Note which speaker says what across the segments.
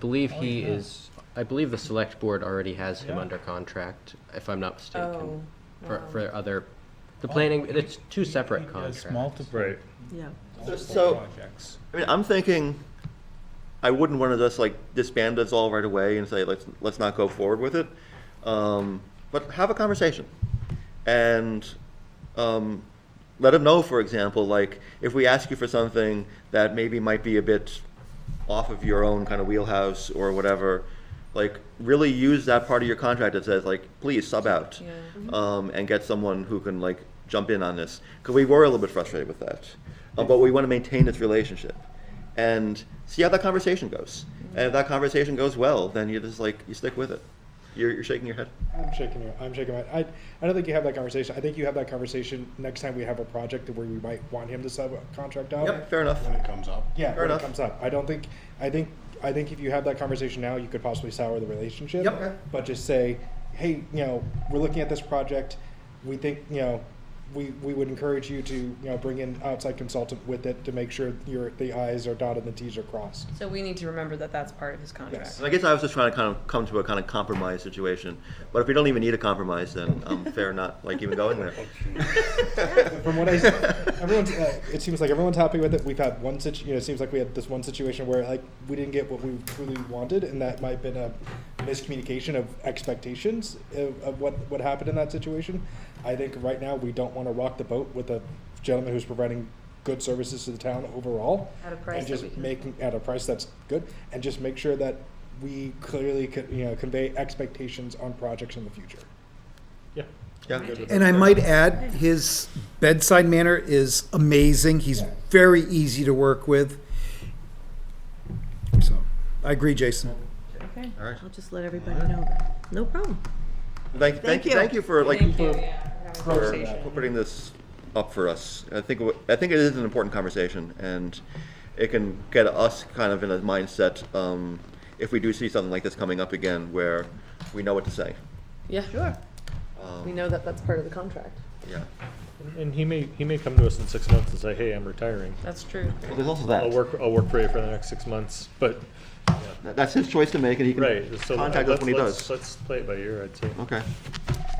Speaker 1: believe
Speaker 2: Oh,
Speaker 1: he
Speaker 2: yeah.
Speaker 1: is, I believe the select board already has him
Speaker 2: Yeah.
Speaker 1: under contract, if I'm not
Speaker 3: Oh.
Speaker 1: mistaken. For,
Speaker 3: wow.
Speaker 1: for other, the
Speaker 2: Oh,
Speaker 1: planning,
Speaker 2: he-
Speaker 1: it's two separate
Speaker 2: He does
Speaker 1: contracts.
Speaker 2: multiple,
Speaker 4: Right.
Speaker 3: Yeah.
Speaker 2: multiple
Speaker 5: So-
Speaker 2: projects.
Speaker 5: I mean, I'm thinking, I wouldn't want to just like disband us all right away and say, let's, let's not go forward with it. Um, but have a conversation and, um, let them know, for example, like if we ask you for something that maybe might be a bit off of your own kind of wheelhouse or whatever, like really use that part of your contract that says like, please sub out.
Speaker 3: Yeah.
Speaker 5: Um, and get someone who can like jump in on this. Cause we were a little bit frustrated with that. Uh, but we want to maintain this relationship and see how that conversation goes.
Speaker 3: Mm-hmm.
Speaker 5: And if that conversation goes well, then you just like, you stick with it. You're, you're shaking your head.
Speaker 6: I'm shaking. your- I'm shaking my. I, I don't think you have that conversation. I think you have that conversation next time we have a project where we might want him to sub a contract out.
Speaker 5: Yep, fair enough.
Speaker 7: when it comes up.
Speaker 6: Yeah,
Speaker 5: Fair
Speaker 6: when
Speaker 5: enough.
Speaker 6: it comes up. I don't think. I think. I think if you have that conversation now, you could possibly sour the relationship.
Speaker 5: Yep, okay.
Speaker 6: But just say, hey, you know, we're looking at this project. We think, you know, we, we would encourage you to, you know, bring in outside consultant with it to make sure your the i's are dotted and the t's are crossed.
Speaker 3: So we need to remember that that's part of his contract.
Speaker 5: And I guess I was just trying to kind of come to a kind of compromise situation. But if we don't even need a compromise, then um, fair not like even going there.
Speaker 6: From what I, everyone's, uh, it seems like everyone's happy with it. We've had one situ, you know, it seems like we had this one situation where like we didn't get what we truly wanted, and that might have been a miscommunication of expectations of, of what what happened in that situation. I think right now we don't want to rock the boat with a gentleman who's providing good services to the town overall,
Speaker 3: At a price
Speaker 6: and
Speaker 3: that
Speaker 6: just
Speaker 3: we can-
Speaker 6: making at a price that's good, and just make sure that we clearly co- you know convey expectations on projects in the future.
Speaker 4: Yeah.
Speaker 5: Yeah.
Speaker 8: And I might add, his bedside manner is amazing. He's
Speaker 6: Yeah.
Speaker 8: very easy to work with. So, I agree, Jason.
Speaker 3: Okay.
Speaker 5: All right.
Speaker 3: I'll just let everybody know that. No problem.
Speaker 5: Thank, thank, you. thank you for like
Speaker 3: Thank you, yeah, for having a
Speaker 5: for
Speaker 3: conversation.
Speaker 5: for putting this up for us. I think it wa- I think it is an important conversation, and it can get us kind of in a mindset um, if we do see something like this coming up again, where we know what to say.
Speaker 3: Yeah. Sure. We know that that's part of the contract.
Speaker 5: Yeah.
Speaker 4: And- And he may, he may come to us in six months and say, hey, I'm retiring.
Speaker 3: That's true.
Speaker 5: Well, there's also that.
Speaker 4: I'll work, I'll work for you for the next six months, but,
Speaker 5: That- That's his choice to make, and he can
Speaker 4: right, so.
Speaker 5: contact us
Speaker 4: let's-
Speaker 5: when he
Speaker 4: let's-
Speaker 5: does.
Speaker 4: Let's play it by ear, I'd say.
Speaker 5: Okay.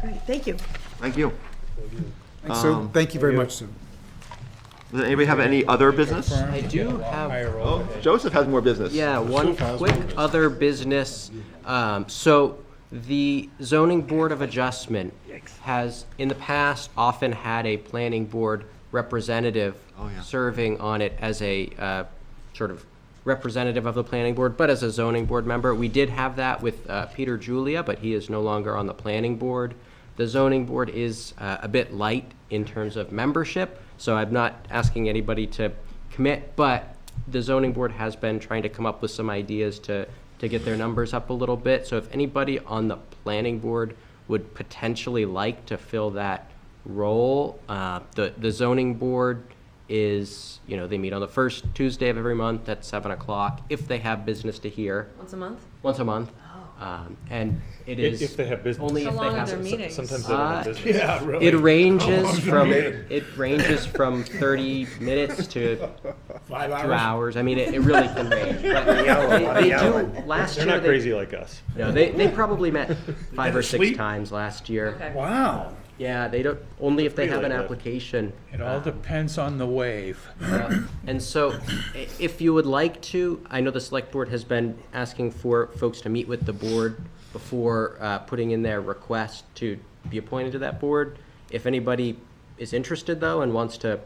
Speaker 3: Great, thank you.
Speaker 5: Thank you.
Speaker 8: Thanks, Sue.
Speaker 5: Um,
Speaker 8: Thank you very much, Sue.
Speaker 5: Does anybody have any other business?
Speaker 2: Confirm
Speaker 1: I
Speaker 2: to
Speaker 1: do
Speaker 2: get a lot
Speaker 1: have-
Speaker 2: higher
Speaker 5: Oh,
Speaker 2: over there.
Speaker 5: Joseph has more business.
Speaker 1: Yeah, one
Speaker 7: files,
Speaker 1: quick
Speaker 7: one business.
Speaker 1: other business. Um, so the zoning board of adjustment has, in the past, often had a planning board representative serving on it as a, uh, sort of representative of the planning board, but as a zoning board member. We did have that with, uh, Peter Julia, but he is no longer on the planning board. The zoning board is, uh, a bit light in terms of membership, so I'm not asking anybody to commit, but the zoning board has been trying to come up with some ideas to, to get their numbers up a little bit. So if anybody on the planning board would potentially like to fill that role, uh, the, the zoning board is, you know, they meet on the first Tuesday of every month at seven o'clock if they have business to hear,
Speaker 3: Once a month?
Speaker 1: once a month. Um, and it
Speaker 4: If,
Speaker 1: is.
Speaker 4: if they have business.
Speaker 1: Only
Speaker 3: How
Speaker 1: if they
Speaker 3: long are
Speaker 1: have.
Speaker 3: their
Speaker 1: some-
Speaker 3: meetings?
Speaker 4: Sometimes they don't have
Speaker 1: Uh,
Speaker 4: business.
Speaker 7: Yeah, really.
Speaker 1: It ranges from,
Speaker 7: meeting?
Speaker 1: it ranges from thirty minutes to
Speaker 7: Five
Speaker 1: two hours. I mean, it, it really can range. But they, they do. Last
Speaker 4: They're
Speaker 1: year,
Speaker 4: not
Speaker 1: they,
Speaker 4: crazy like us.
Speaker 1: No, they, they probably met five or six
Speaker 7: sleep.
Speaker 1: times last year.
Speaker 3: Okay.
Speaker 7: Wow.
Speaker 1: Yeah, they don't. Only if they
Speaker 4: Really
Speaker 1: have an
Speaker 4: good.
Speaker 1: application.
Speaker 2: It all depends on the wave.
Speaker 1: Yeah. And so, i- if you would like to, I know the select board has been asking for folks to meet with the board before uh, putting in their request to be appointed to that board. If anybody is interested though and wants to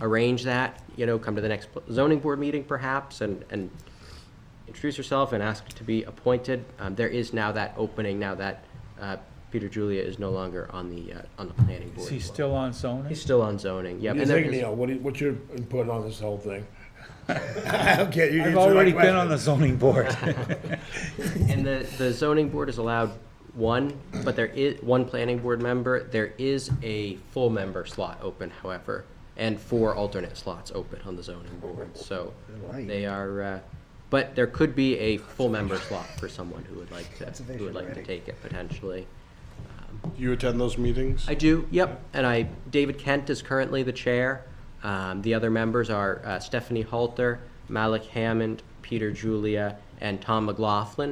Speaker 1: arrange that, you know, come to the next zoning board meeting perhaps and, and introduce yourself and ask to be appointed. Um, There is now that opening, now that uh, Peter Julia is no longer on the, uh, on the planning board.
Speaker 2: Is he still on zoning?
Speaker 1: He's still on zoning, yep.
Speaker 7: What
Speaker 1: And
Speaker 7: do
Speaker 1: there
Speaker 7: you think,
Speaker 1: is-
Speaker 7: Neil? What do you- what's your input on this whole thing? I don't care. You
Speaker 2: I've
Speaker 7: answer my
Speaker 2: already been
Speaker 7: question.
Speaker 2: on the zoning board.
Speaker 1: And the, the zoning board is allowed one, but there is, one planning board member. There is a full member slot open, however, and four alternate slots open on the zoning board, so they are, uh, but there could be a full member slot for someone who would like to, who would like to take it potentially.
Speaker 7: Do you attend those meetings?
Speaker 1: I do, yep, and I, David Kent is currently the chair. Um, the other members are uh, Stephanie Halter, Malik Hammond, Peter Julia, and Tom McLaughlin,